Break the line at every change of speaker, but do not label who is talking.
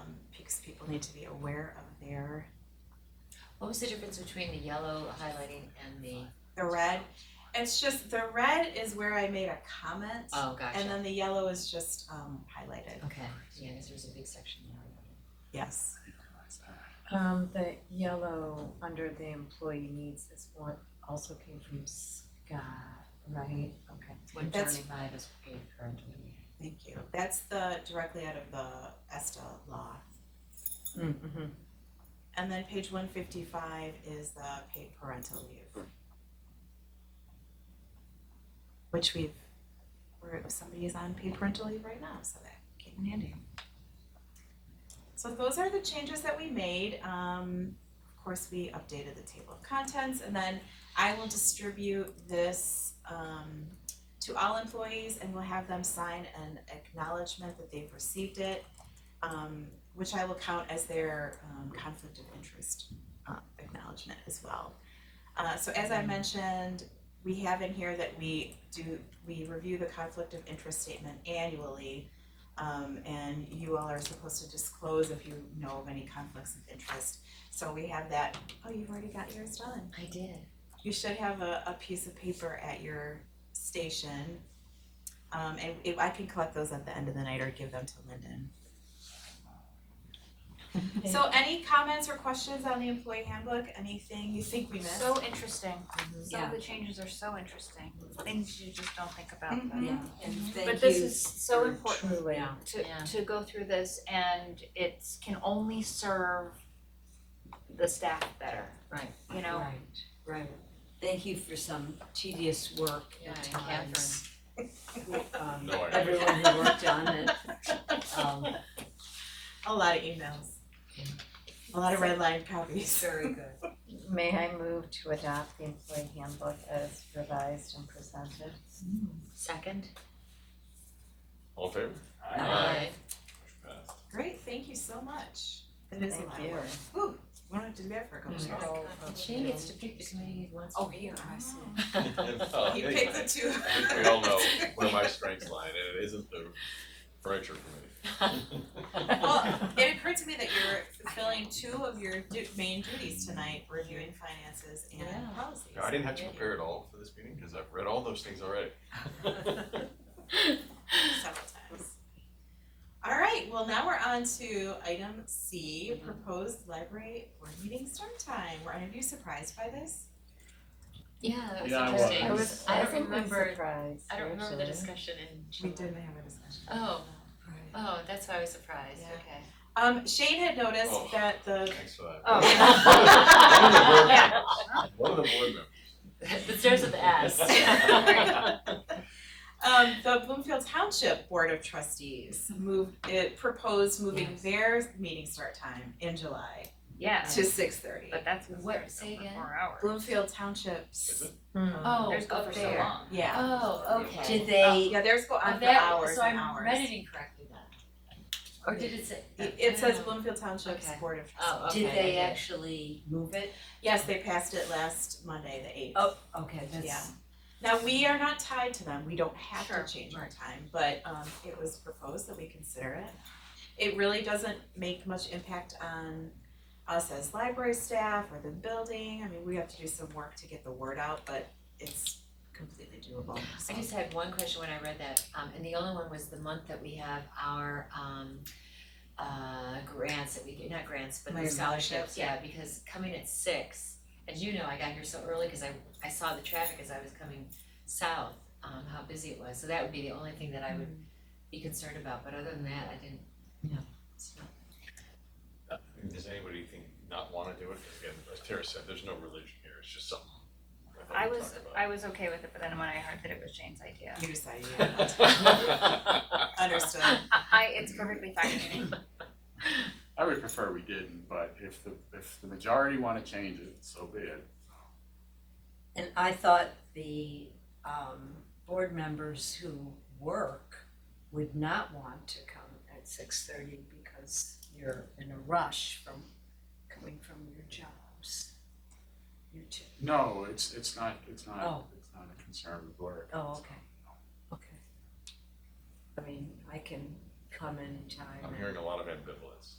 um, need to be aware of their,
What was the difference between the yellow highlighting and the,
the red. It's just, the red is where I made a comment.
oh, gotcha.
And then the yellow is just um highlighted,
Okay, yeah, because there's a big section there.
yes.
Um, the yellow under the employee needs is what also came from Scott, right? Okay.
One
That's-
seventy-five is paid currently.
Thank you. That's the, directly out of the ESTA law.
Mm-hmm.
And then page one fifty-five is the paid parental leave. Which we've, we're, somebody is on paid parental leave right now, so that came in handy. So those are the changes that we made. Um, of course, we updated the table of contents and then I will distribute this, um, to all employees and we'll have them sign an acknowledgement that they've received it. Um, which I will count as their um, conflict of interest uh, acknowledgement as well. Uh, so as I mentioned, we have in here that we do, we review the conflict of interest statement annually. um, and you all are supposed to disclose if you know of any conflicts of interest. So we have that, oh, you've already got yours done.
I did.
You should have a, a piece of paper at your station. Um, and if, I can collect those at the end of the night or give them to Lyndon. So any comments or questions on the employee handbook, anything you think we missed?
So interesting.
Mm-hmm.
Some
Yeah.
of the changes are so interesting, things you just don't think about.
Mhm.
Yeah.
And
But
Mm-hmm. thank
this
you
is so
for
important
Truly.
Yeah.
to
Yeah.
to go through this and it's can only serve the staff better.
Right.
You know,
Right, right.
Thank you for some tedious work
Yeah,
at
and
times. Um,
No, I-
everyone who worked on it, um,
A lot of emails. A lot of red line copies.
very good.
May I move to adopt the employee handbook as revised and presented?
Second?
All in favor?
Aye.
Motion passed.
Great, thank you so much. Mm-hmm. It is a
Thank
lot
you.
of work. Ooh, we don't have to do that for a couple
Mm.
of hours.
She gets to pick the committee he wants.
Oh, here, I see.
Oh,
You
hey,
picked
I
the two.
think we all know where my strengths lie, and it isn't the furniture committee.
Well, it occurred to me that you're fulfilling two of your du- main duties tonight, reviewing finances and
Yeah.
policies.
No, I didn't have to prepare at all for this meeting, because I've read all those things already.
several times. All right, well, now we're on to item C, proposed library board meeting start time. Were any of you surprised by this?
Yeah, that was
Yeah, I was.
interesting.
I was
I
pleasantly
remember-
surprised,
I don't remember the
actually.
discussion in
We
July.
didn't have a discussion.
Oh, oh, that's why I was surprised,
Yeah.
okay.
Um, Shane had noticed
Oh.
that the,
Thanks for that.
Oh.
Yeah. One of the board members.
The stairs of the ass.
um, the Bloomfield Township Board of Trustees moved, it proposed moving their meeting start time in July
yeah,
to six thirty.
but that's been
What-
there
say
for
again?
four hours.
Bloomfield Township's.
Is it?
Hmm.
Oh,
There's go
up
for so
there.
long.
Yeah.
Oh,
Did
okay.
they,
Yeah, theirs go
Oh,
on for
that-
hours
so I
and hours.
read it incorrectly then. Or did it say?
It it says
Oh.
Bloomfield Township's
Okay.
Board of Trustees.
Oh, okay.
did they
I it.
actually move it?
Yes, they passed it last Monday, the eighth.
Oh, okay,
Yeah.
that's,
Now, we are not tied to them, we don't have
Sure,
to change our time, but um it was proposed that we consider it. It really doesn't make much impact on us as library staff or the building, I mean, we have to do some work to get the word out, but it's completely doable, so.
I just had one question when I read that, um, and the only one was the month that we have our, um, uh, grants that we get, not grants, but the
Right,
scholarships,
scholarships,
yeah, because coming at six, as you know, I got here so early, cause I, I saw the traffic as I was coming south, um, how busy it was, so that would be the only thing that I would
Mm-hmm.
be concerned about, but other than that, I didn't, you know, it's not-
Does anybody think not wanna do it? 'Cause Again, as Tara said, there's no religion here, it's just something. thought
I
we
was
talked
I was okay with it, but then when I heard that it was Shane's idea,
You decided, yeah,
about.
understood.
I, I it's perfectly fine with me.
I would prefer we didn't, but if the, if the majority wanna change it, so be it.
and I thought the, um, board members who work would not want to come at six thirty because you're in a rush from, coming from your jobs. You too.
No, it's, it's not, it's not,
Oh.
it's not a concern with work.
Oh, okay. Okay. I mean, I can come anytime.
I'm hearing a lot of ambivalence.